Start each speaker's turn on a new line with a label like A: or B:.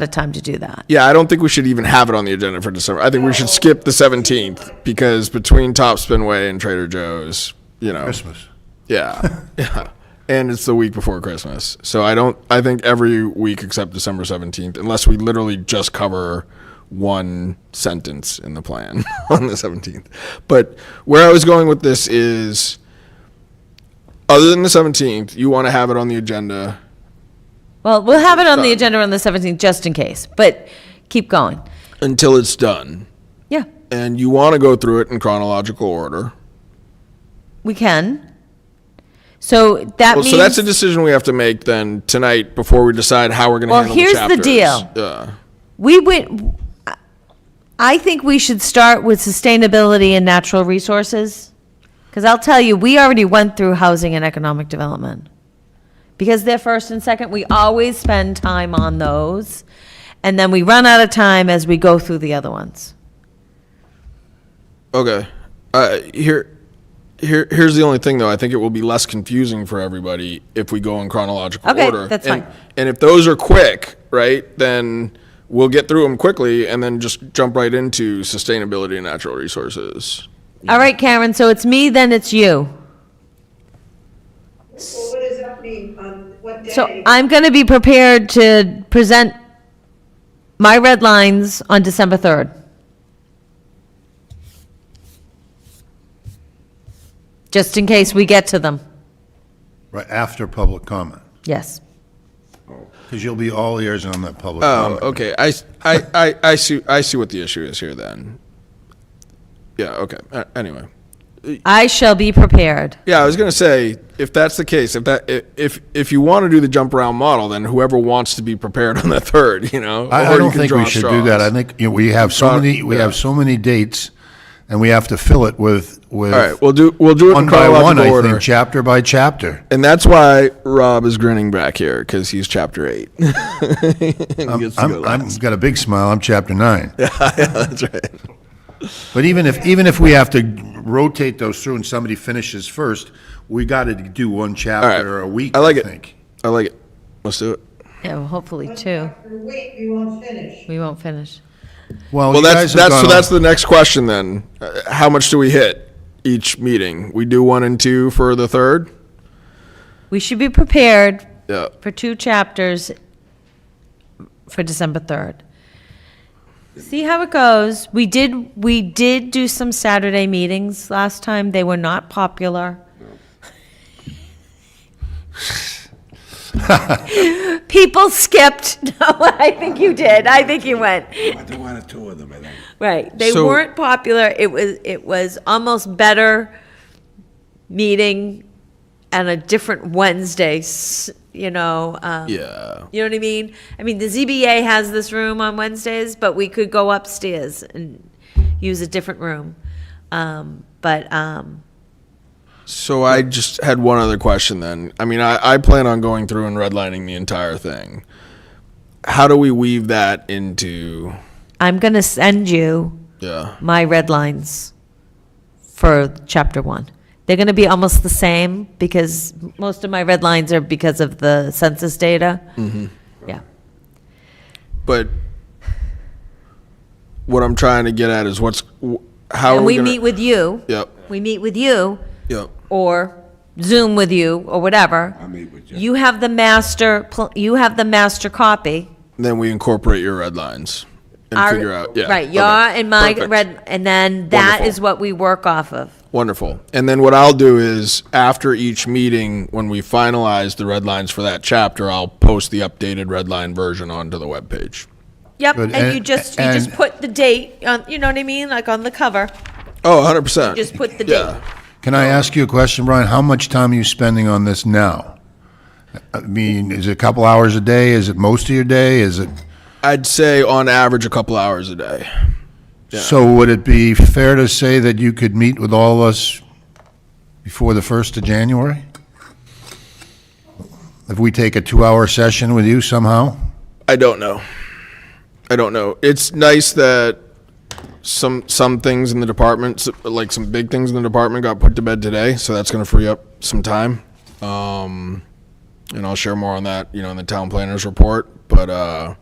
A: lot of time to do that.
B: Yeah, I don't think we should even have it on the agenda for December. I think we should skip the 17th because between Top Spinway and Trader Joe's, you know.
C: Christmas.
B: Yeah. yeah. And it's the week before Christmas. So I don't I think every week except December 17th unless we literally just cover one sentence in the plan on the 17th. But where I was going with this is other than the 17th, you want to have it on the agenda.
A: Well, we'll have it on the agenda on the 17th just in case, but keep going.
B: until it's done.
A: Yeah,
B: And you want to go through it in chronological order.
A: we can. So that
B: Well,
A: means
B: so that's a decision we have to make then tonight before we decide how we're going to
A: Well,
B: handle
A: here's
B: the chapters.
A: the deal.
B: Yeah.
A: we went. I think we should start with sustainability and natural resources. Because I'll tell you, we already went through housing and economic development. Because they're first and second, we always spend time on those. And then we run out of time as we go through the other ones.
B: Okay. Uh, here, here, here's the only thing though. I think it will be less confusing for everybody if we go in chronological
A: Okay,
B: order.
A: that's
B: and,
A: fine.
B: And if those are quick, right, then we'll get through them quickly and then just jump right into sustainability and natural resources.
A: All right, Karen, so it's me, then it's you.
D: Well, what does that mean on what day?
A: So I'm going to be prepared to present my red lines on December 3rd. Just in case we get to them.
C: Right after public comment,
A: Yes.
C: because you'll be all ears on that public
B: Oh,
C: comment.
B: okay. I, I, I, I see. I see what the issue is here. Then. Yeah. Okay. Uh, anyway.
A: I shall be prepared.
B: Yeah, I was gonna say if that's the case, if that i- if if you want to do the jump around model, then whoever wants to be prepared on the third, you know.
C: I,
B: or
C: I
B: you
C: don't
B: can
C: think
B: draw
C: we should do that. I
B: straws.
C: think, you know, we have so
B: Draw-
C: many, we
B: yeah.
C: have so many dates, and we have to fill it with, with.
B: All right, we'll do we'll do it
C: One
B: in
C: by one,
B: chronological
C: I
B: order,
C: think, chapter by chapter.
B: and that's why Rob is grinning back here because he's chapter eight. And he gets to go
C: I'm, I'm,
B: last.
C: got a big smile, I'm chapter nine.
B: yeah, that's right.
C: But even if, even if we have to rotate those through and somebody finishes first, we got to do one chapter a week,
B: I
C: I
B: like it.
C: think.
B: I like it. Let's do it.
A: Yeah, well, hopefully two.
D: After a week, we won't finish.
A: We won't finish.
B: Well,
C: you
B: that's
C: guys have
B: that's so
C: gone
B: that's
C: on-
B: the next question then. Uh, How much do we hit each meeting? We do one and two for the third.
A: We should be prepared
B: Yeah.
A: for two chapters for December 3rd. See how it goes. We did, we did do some Saturday meetings last time. They were not popular. People skipped. No, I think you did. I think you went.
E: I think one or two of them, I think.
A: Right. They
B: So-
A: weren't popular. It was, it was almost better meeting and a different Wednesday, s- you know, um,
B: Yeah.
A: you know what I mean? I mean, the ZBA has this room on Wednesdays, but we could go upstairs and use a different room. Um, but, um,
B: So I just had one other question then. I mean, I, I plan on going through and redlining the entire thing. How do we weave that into
A: I'm going to send you
B: yeah?
A: my red lines for chapter one. They're going to be almost the same because most of my red lines are because of the census data.
B: Mm-hmm.
A: Yeah.
B: But what I'm trying to get at is what's wh- how are
A: And
B: we,
A: we
B: gonna-
A: meet with you.
B: Yep.
A: We meet with you.
B: Yep.
A: or Zoom with you or whatever.
E: I meet with you.
A: You have the master, pl- you have the master copy.
B: Then we incorporate your red lines and
A: Our-
B: figure out yeah.
A: Right,
B: okay,
A: your and my
B: perfect.
A: red, and then that
B: Wonderful.
A: is what we work off of.
B: Wonderful. And then what I'll do is after each meeting, when we finalize the red lines for that chapter, I'll post the updated red line version onto the webpage.
A: Yep,
C: Good,
A: and you
C: and-
A: just, you just
C: and-
A: put the date on, you know what I mean, like on the cover,
B: Oh, 100%.
A: just put the
B: yeah.
A: date.
C: Can I ask you a question, Brian? How much time are you spending on this now? I mean, is it a couple hours a day? Is it most of your day? Is it,
B: I'd say on average a couple hours a day.
C: so would it be fair to say that you could meet with all of us before the 1st of January? If we take a two-hour session with you somehow?
B: I don't know. I don't know. It's nice that some some things in the department, s- like some big things in the department, got put to bed today. So that's going to free up some time. Um, and I'll share more on that, you know, in the town planners report. But uh,